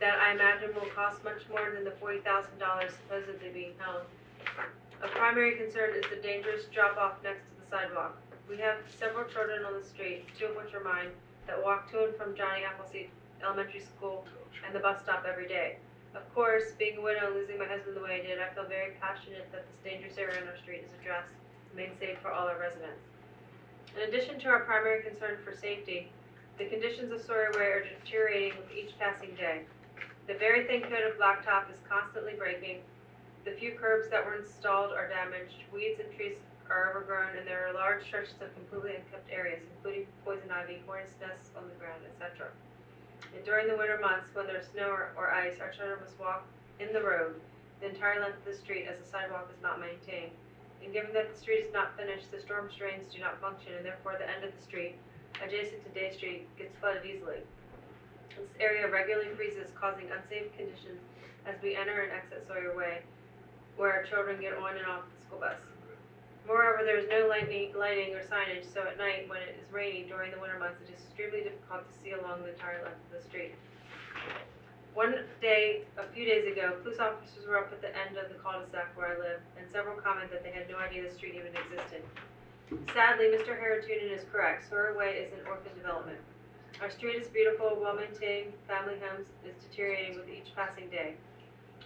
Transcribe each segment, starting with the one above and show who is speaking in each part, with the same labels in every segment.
Speaker 1: that I imagine will cost much more than the forty thousand dollars supposedly being held. A primary concern is the dangerous drop-off next to the sidewalk. We have several children on the street, two of which are mine, that walk to and from Johnny Appleseed Elementary School and the bus stop every day. Of course, being a widow and losing my husband the way I did, I feel very passionate that this dangerous area on our street is addressed and made safe for all our residents. In addition to our primary concern for safety, the conditions of Sawyer Way are deteriorating with each passing day. The very thin coat of blacktop is constantly breaking. The few curbs that were installed are damaged. Weeds and trees are overgrown, and there are large stretches of completely unkept areas, including poison ivy, hornet's nests on the ground, etc. And during the winter months, when there's snow or, or ice, our children must walk in the road the entire length of the street as the sidewalk is not maintained. And given that the street is not finished, the storm drains do not function, and therefore the end of the street, adjacent to Day Street, gets flooded easily. This area regularly freezes, causing unsafe conditions as we enter and exit Sawyer Way, where our children get on and off the school bus. Moreover, there is no lightning, lighting or signage, so at night, when it is raining during the winter months, it is extremely difficult to see along the entire length of the street. One day, a few days ago, police officers were up at the end of the cul-de-sac where I live, and several commented that they had no idea the street even existed. Sadly, Mr. Harrington is correct. Sawyer Way is an orphan development. Our street is beautiful, well-maintained, family homes is deteriorating with each passing day.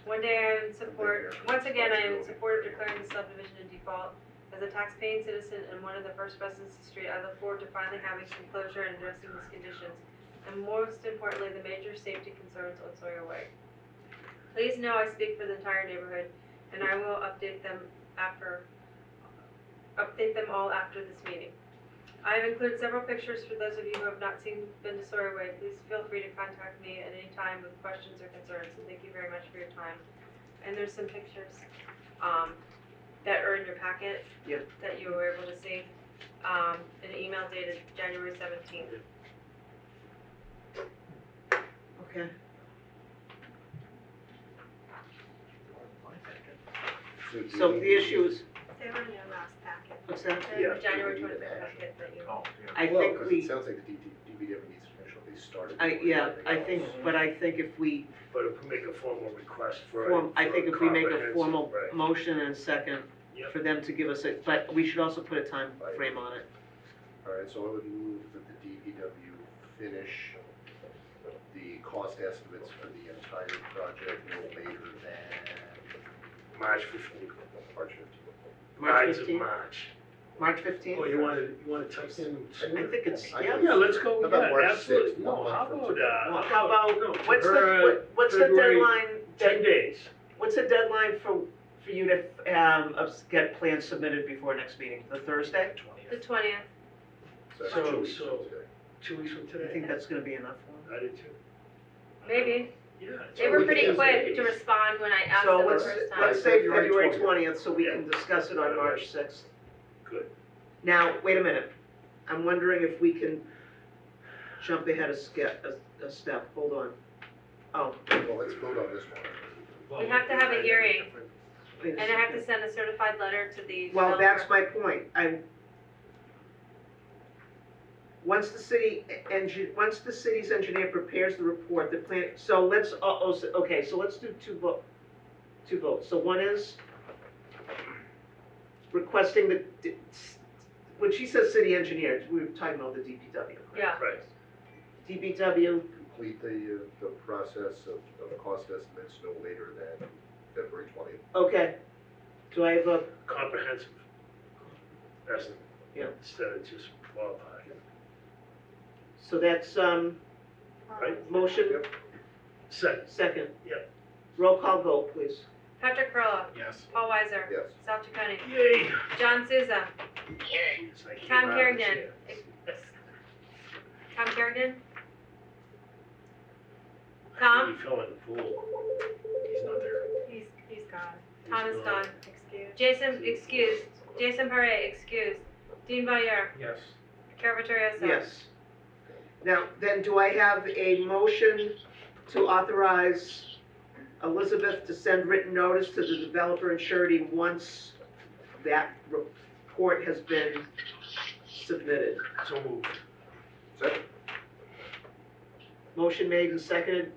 Speaker 1: One day I am in support, once again, I am in support of declaring the subdivision in default. As a tax-paying citizen and one of the first residents of the street, I look forward to finally having some closure and addressing these conditions and most importantly, the major safety concerns on Sawyer Way. Please know I speak for the entire neighborhood, and I will update them after, update them all after this meeting. I have included several pictures for those of you who have not seen, been to Sawyer Way, please feel free to contact me at any time with questions or concerns, and thank you very much for your time. And there's some pictures, um, that are in your packet.
Speaker 2: Yep.
Speaker 1: That you were able to see, um, an email dated January seventeenth.
Speaker 2: Okay. So the issue is,
Speaker 1: They were in your last packet.
Speaker 2: what's that?
Speaker 1: They were
Speaker 3: Yeah,
Speaker 1: January
Speaker 3: we need
Speaker 1: twenty-fifth
Speaker 3: an action.
Speaker 1: packet that you.
Speaker 3: Oh, yeah.
Speaker 2: I
Speaker 4: Well,
Speaker 2: think
Speaker 4: 'cause It
Speaker 2: we,
Speaker 4: sounds like the DD DPW needs to make sure they started.
Speaker 2: I,
Speaker 4: doing
Speaker 2: yeah,
Speaker 4: everything
Speaker 2: I
Speaker 4: else.
Speaker 2: think, but I think if we,
Speaker 3: But if we make a formal request for. a-
Speaker 2: form, I
Speaker 3: for
Speaker 2: think if we make a
Speaker 3: comprehensive-
Speaker 2: formal
Speaker 3: right.
Speaker 2: motion and a second
Speaker 3: Yep.
Speaker 2: for them to give us a, but we should also put a time frame on it.
Speaker 4: All right, so I would move that the DPW finish the cost estimates for the entire project no later than
Speaker 3: March fifteenth.
Speaker 4: March fifteenth.
Speaker 2: March fifteenth,
Speaker 3: March.
Speaker 2: March fifteenth?
Speaker 3: Oh, you wanna, you wanna type in
Speaker 2: I
Speaker 3: sooner?
Speaker 2: think it's,
Speaker 4: I
Speaker 2: yeah.
Speaker 4: think
Speaker 3: Yeah, let's go,
Speaker 4: How about
Speaker 3: yeah,
Speaker 4: March
Speaker 3: absolutely,
Speaker 4: sixth?
Speaker 3: no,
Speaker 4: One month
Speaker 3: how
Speaker 4: from
Speaker 3: about,
Speaker 4: today.
Speaker 3: uh,
Speaker 2: Well, how about-
Speaker 3: no,
Speaker 2: What's the,
Speaker 3: for, uh,
Speaker 2: what- what's the
Speaker 3: February
Speaker 2: deadline,
Speaker 3: Ten days,
Speaker 2: what's the deadline for, for you to, um, us- get plans submitted before next meeting, the Thursday?
Speaker 1: The twentieth,
Speaker 4: that's
Speaker 3: So-
Speaker 4: two weeks from
Speaker 3: so-
Speaker 4: today.
Speaker 3: two weeks from
Speaker 2: I think
Speaker 3: today.
Speaker 2: that's gonna be enough for them.
Speaker 3: I did too.
Speaker 1: maybe.
Speaker 3: Yeah.
Speaker 1: They were pretty
Speaker 4: Tuesday.
Speaker 1: quick to respond when I asked
Speaker 2: So
Speaker 1: them the
Speaker 2: let's,
Speaker 1: first time.
Speaker 2: let's say
Speaker 4: February
Speaker 2: February
Speaker 4: 20th.
Speaker 2: twentieth, so we can discuss it on March sixth.
Speaker 3: Good.
Speaker 2: Now, wait a minute, I'm wondering if we can jump ahead a skip, a, a step, hold on. Oh,
Speaker 4: Well, let's vote on this one.
Speaker 1: We have to have a hearing.
Speaker 2: wait a
Speaker 1: And I have to
Speaker 2: second.
Speaker 1: send a certified letter to the.
Speaker 2: Well, that's
Speaker 1: developer.
Speaker 2: my point, I. Once the city engi, once the city's engineer prepares the report, the plan, so let's, uh, oh, so- okay, so let's do two vote, two votes, so one is requesting the, d- s- when she says city engineer, we were talking about the DPW.
Speaker 1: Yeah,
Speaker 3: Right,
Speaker 2: DPW,
Speaker 4: Complete the, uh, the process of, of cost estimates no later than February twentieth.
Speaker 2: okay, do I have a,
Speaker 3: comprehensive. That's,
Speaker 2: Yeah.
Speaker 3: instead of just qualified.
Speaker 2: so that's, um,
Speaker 3: Right.
Speaker 2: motion,
Speaker 3: Second,
Speaker 2: second.
Speaker 3: Yeah.
Speaker 2: Roll call vote, please.
Speaker 1: Patrick Perla,
Speaker 3: yes.
Speaker 1: Paul Weiser,
Speaker 4: Yes.
Speaker 1: South Chacony,
Speaker 3: Yay.
Speaker 1: John Souza,
Speaker 3: Yes, I came
Speaker 1: Tom
Speaker 3: out of the
Speaker 1: Kerrigan.
Speaker 3: chair.
Speaker 1: Tom Kerrigan.
Speaker 3: I
Speaker 1: Tom,
Speaker 3: really fell in the pool. He's not there.
Speaker 5: He's, he's gone,
Speaker 1: Tom is
Speaker 3: He's
Speaker 1: gone.
Speaker 5: excuse.
Speaker 1: Jason, excused. Jason Parre, excused. Dean Valier,
Speaker 3: Yes.
Speaker 1: Carol Vittorioso.
Speaker 2: Yes. Now, then do I have a motion to authorize Elizabeth to send written notice to the developer and surety once that report has been submitted?
Speaker 3: So moved.
Speaker 4: Second?
Speaker 2: Motion made and seconded,